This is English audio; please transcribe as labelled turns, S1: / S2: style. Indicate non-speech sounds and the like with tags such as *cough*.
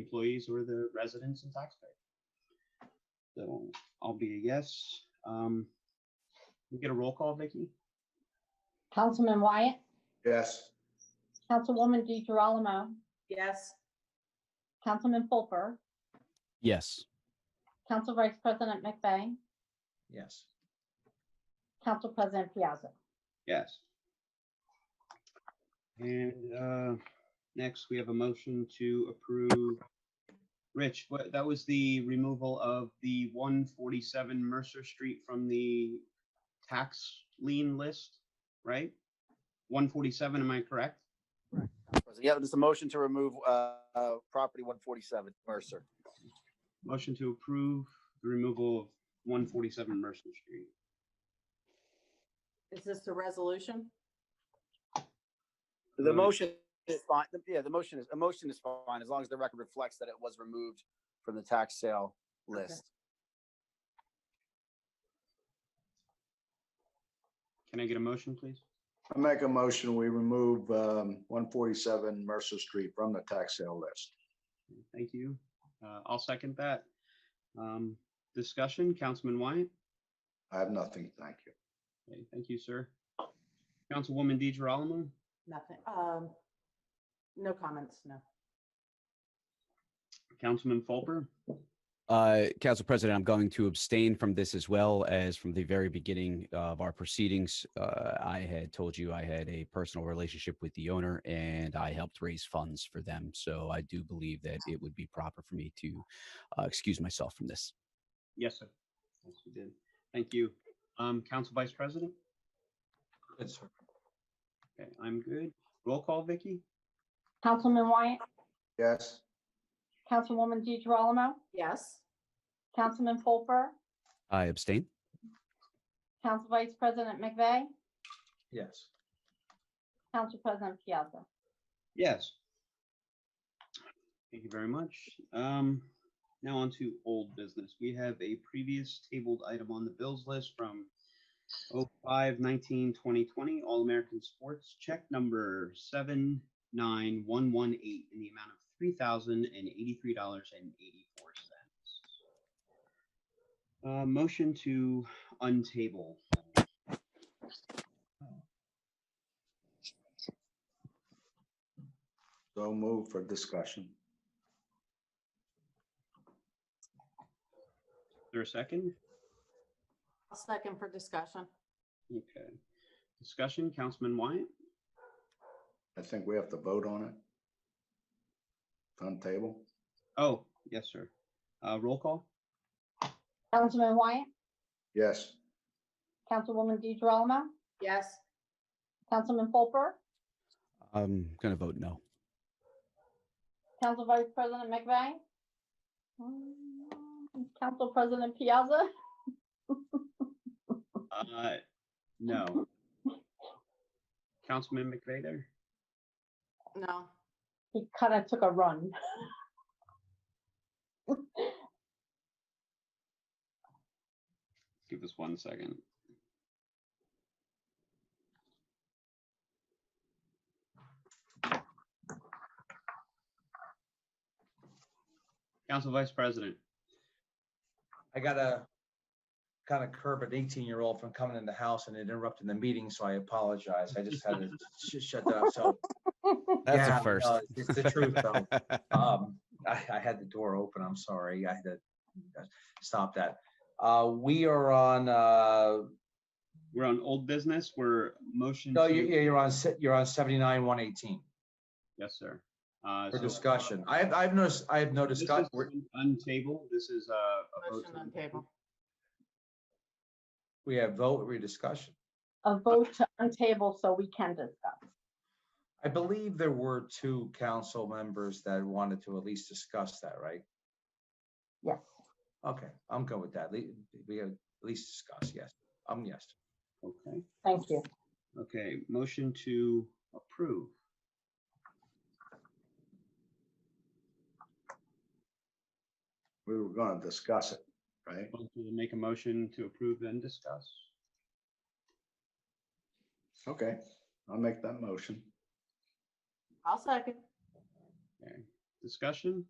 S1: employees or the residents and taxpayers. So I'll be a yes. Um, we get a roll call, Vicky?
S2: Councilman Wyatt,
S3: Yes.
S2: Councilwoman DeGirolamo,
S4: Yes.
S2: Councilman Fulper,
S5: Yes.
S2: Council Vice President McVeigh,
S6: Yes.
S2: Council President Piazza.
S1: Yes. And uh, next, we have a motion to approve. Rich, what, that was the removal of the one forty-seven Mercer Street from the tax lien list, right? One forty-seven, am I correct?
S7: Yeah, there's a motion to remove uh, uh, property 147 Mercer.
S1: Motion to approve the removal of one forty-seven Mercer Street.
S4: Is this the resolution?
S7: The
S1: Right.
S7: motion is fine. Yeah, the motion is, a motion is fine as long as the record reflects that it was removed from the tax sale list.
S1: Can I get a motion, please?
S3: I make a motion, we remove um, 147 Mercer Street from the tax sale list.
S1: Thank you. Uh, I'll second that. Um, discussion, Councilman Wyatt?
S3: I have nothing, thank you.
S1: Okay, thank you, sir. Councilwoman DeGirolamo,
S4: Nothing. Um, no comments, no.
S1: Councilman Fulper,
S5: Uh, Council President, I'm going to abstain from this as well as from the very beginning of our proceedings. Uh, I had told you I had a personal relationship with the owner and I helped raise funds for them. So I do believe that it would be proper for me to uh, excuse myself from this.
S1: yes, sir. Yes, we did. Thank you. Um, Council Vice President?
S6: Good, sir.
S1: Okay, I'm good. Roll call, Vicky?
S2: Councilman Wyatt,
S3: Yes,
S2: Councilwoman DeGirolamo,
S4: Yes.
S2: Councilman Fulper,
S5: I abstain.
S2: Council Vice President McVeigh,
S6: Yes.
S2: Council President Piazza.
S1: Yes. Thank you very much. Um, now on to old business. We have a previous tabled item on the bills list from 05, 19, 2020, All American Sports, check number 79118 in the amount of $3,083.84. Uh, motion to untable.
S3: so move for discussion.
S1: Is there a second?
S4: I'll second for discussion.
S1: Okay. Discussion, Councilman Wyatt?
S3: I think we have to vote on it. On table?
S1: Oh, yes, sir. Uh, roll call?
S2: Councilman Wyatt,
S3: Yes,
S2: Councilwoman DeGirolamo,
S4: Yes.
S2: Councilman Fulper,
S5: I'm going to vote no.
S2: Council Vice President McVeigh, mm, Council President Piazza,
S1: Uh, no. Councilman McVeigh there?
S4: No.
S2: he kind of took a run.
S1: Give us one second. Council Vice President,
S6: I gotta kind of curb an eighteen-year-old from coming in the house and interrupting the meeting, so I apologize. I just had to sh- shut that up. So,
S5: *laughs* That's
S6: Yeah,
S5: a first.
S6: no, it's- it's the truth,
S5: *laughs*
S6: though. um, I, I had the door open. I'm sorry. I had to uh, stop that. Uh, we are on, uh,
S1: we're on old business. We're motion.
S6: no,
S1: to-
S6: you, you're on, se- you're on seventy-nine, one eighteen
S1: Yes, sir. Uh,
S6: for
S1: so-
S6: discussion. I have, I've noticed, I have no
S1: This is
S6: discussion.
S1: Untable, this is uh, a. vote
S4: Motion
S1: to
S4: on table.
S6: We have vote, we discussion.
S2: A vote to untable so we can discuss.
S6: I believe there were two council members that wanted to at least discuss that, right?
S2: Yes.
S6: Okay, I'm good with that. Le- We have at least discuss, yes. I'm yes.
S1: Okay,
S2: Thank you.
S1: okay, motion to approve.
S3: we were going to discuss it, right?
S1: Want to Make a motion to approve and discuss.
S3: Okay, I'll make that motion.
S4: I'll second.
S1: Okay, discussion?